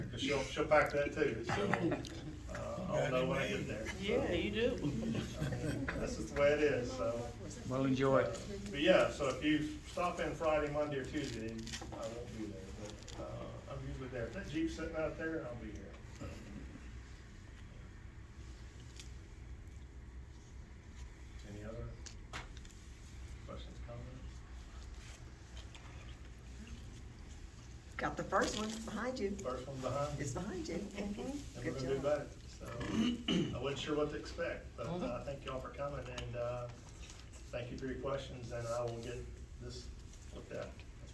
she'll, she'll pack that too, so, uh, I'll know when I get there. Yeah, you do. That's just the way it is, so. We'll enjoy it. But yeah, so if you stop in Friday, Monday, or Tuesday, I won't be there, but, uh, I'm usually there. If that Jeep's sitting out there, I'll be here. so. Any other questions, comments? Got the first one behind you. First one behind? It's behind you. And we're Good gonna do job. better, so, I wasn't sure what to expect, but uh, thank y'all for coming, and, uh, thank you for your questions, and I will get this looked at.